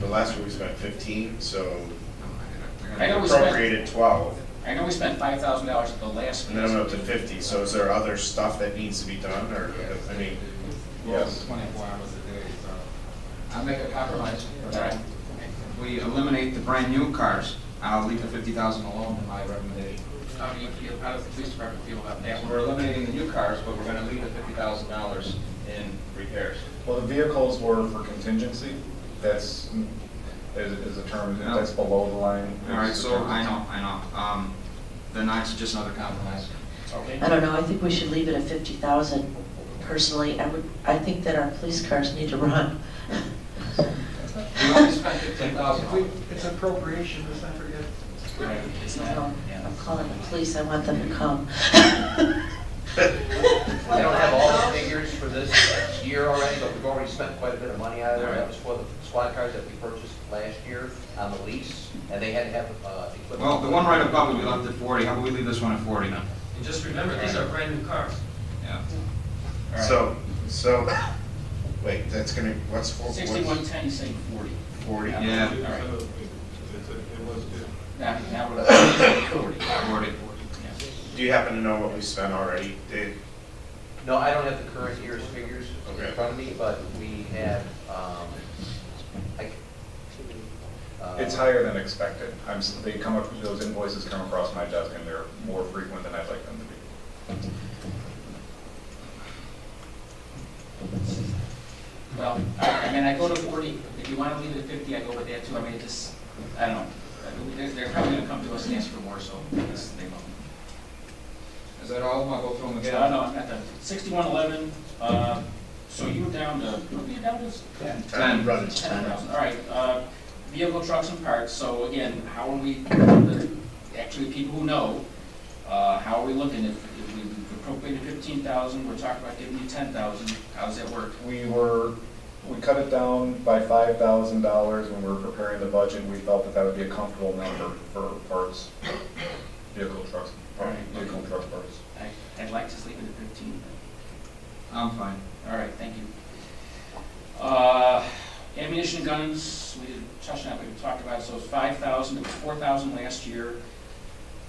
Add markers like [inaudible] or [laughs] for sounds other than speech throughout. But last year we spent fifteen, so I know we spent- appropriated twelve, I know we spent five thousand dollars at the last. and then I'm up to fifty, so is there other stuff that needs to be done, or, I mean, Yes. Twenty-four hours a day, so. I'll make a compromise. Alright. We eliminate the brand new cars, I'll leave the fifty thousand alone in my recommendation. How do you feel, how does the police department feel about that? And we're eliminating the new cars, but we're gonna leave the fifty thousand dollars in repairs. Well, the vehicles were for contingency, that's, is, is a term, that's below the line. Alright, Oh. so I know, I know, um, the nine's just another compromise. I don't know, I think we should leave it at fifty thousand. Personally, I would, I think that our police cars need to run. We only spent fifteen If thousand. we- It's appropriation, let's not forget. Right, it's I not, don't- yeah. I'm calling the police, I want them to come. I don't have all the figures for this year already, but we've already spent quite a bit of money out of there. That was for the squad cars that we purchased last year on the lease, and they had to have uh, equipment. Well, the one right above it, we left at forty, how about we leave this one at forty then? And just remember, these are brand new cars. Yeah. so, so, wait, that's gonna, what's four, what's Sixty-one ten, you say forty. forty? Yeah. All right. It was good. Now, now we're at forty. Forty. Do you happen to know what we spent already, Dave? No, I don't have the current year's figures Okay. in front of me, but we have, um, I. uh, It's higher than expected, I'm, s- they come up, those invoices come across my desk and they're more frequent than I'd like them to be. Well, I I mean, I go to forty, if you want to leave it at fifty, I go with that too, I mean, it just, I don't know. They're- They're probably gonna come to us and ask for more, so yes, they will. Is that all, I'll go through them again? No, no, I'm not done. Sixty-one eleven, uh, so you were down to, what were you down to? Ten. Ten. Brother, Ten thousand, all right, uh, vehicle, trucks and parts, so again, how are we, the- actually, people who know, uh, how are we looking? If, if we appropriated fifteen thousand, we're talking about giving you ten thousand, how does that work? We were, we cut it down by five thousand dollars when we were preparing the budget, we felt that that would be a comfortable number for parts, vehicle trucks, vehicle truck parts. I, I'd like to just leave it at fifteen. I'm fine. All right, thank you. Uh, ammunition guns, we did, Josh and I, we talked about, it, so it's five thousand, it was four thousand last year.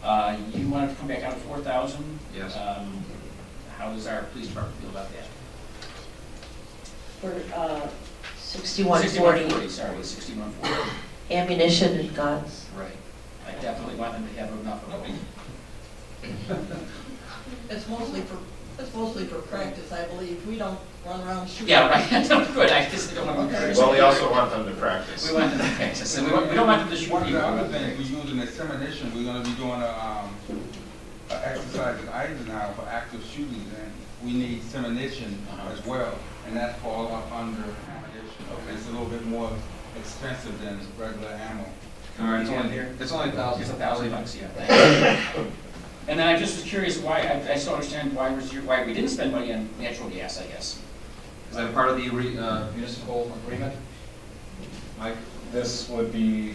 Uh, you wanted to come back out at four thousand? Yes. Um, how does our police department feel about that? For, uh, sixty-one Sixty-one forty, forty, sorry, sixty-one forty. ammunition and guns. Right. I definitely want them to have enough of them. It's mostly for, it's mostly for practice, I believe. We don't run around shooting. Yeah, right, [laughs] good, I just don't want them to. Well, we also want them to practice. We want them to practice, and we want, we don't want them to shoot One of the other people. things, we use in extermination, we're gonna be doing a, um, a exercise in Eisenhower for active shootings, and we need semination Uh-huh. as well, and that falls up under ammunition. It's a little bit more expensive than regular ammo. All right, it's Yeah. only, it's only a thousand. It's a thousand bucks, yeah. And then I just was curious why, I, I still understand why was your, why we didn't spend money on natural gas, I guess. Is that part of the re- uh, municipal agreement? Mike? This would be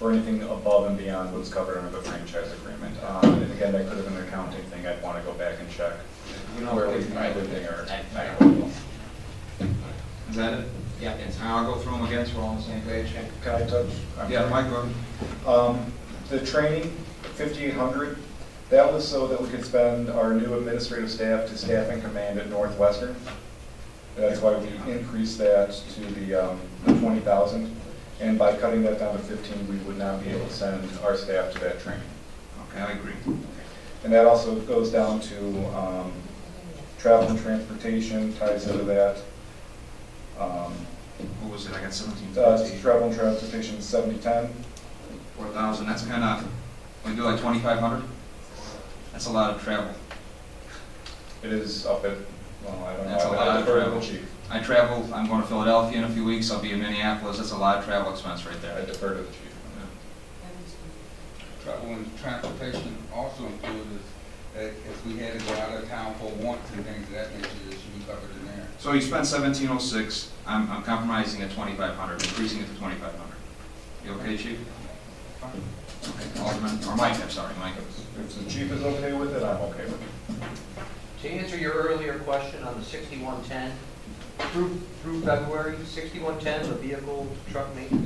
for anything above and beyond what's covered under the franchise agreement. Um, And again, that could have been an accounting thing, I'd want to go back and check where we, everything are. Is that it? Yeah, that's. And I'll go through them again, so we're all on the same page. Can I touch? I'm Yeah, sorry. Mike, go ahead. Um, The training, 5,800, that was so that we could spend our new administrative staff to staff and command at Northwestern. That's why we increased that to the um, the 20,000. And by cutting that down to 15, we would not be able to send our staff to that training. Okay, I agree. And that also goes down to um, travel and transportation, ties into that. Um, What was it, I got seventeen uh, fifty, Travel and transportation, 7010. four thousand, that's kind of, we do like twenty-five hundred? That's a lot of travel. It is up at, well, I don't know. That's a I- I lot of defer to the travel. chief. I travel, I'm going to Philadelphia in a few weeks, I'll be in Minneapolis, that's a lot of travel expense right I there. defer to the chief. Uh, [laughs] Travel and transportation also included, uh, if we had to go out of town for wants and things of that nature, it should be covered in there. So you spent seventeen oh six, I'm, I'm compromising at twenty-five hundred, increasing it to twenty-five hundred. You okay, chief? Okay, Alderman, or Mike, I'm sorry, Mike. If the chief is okay with it, I'm okay with it. To answer your earlier question on the sixty-one ten, through, through February, sixty-one ten, the vehicle truck maintenance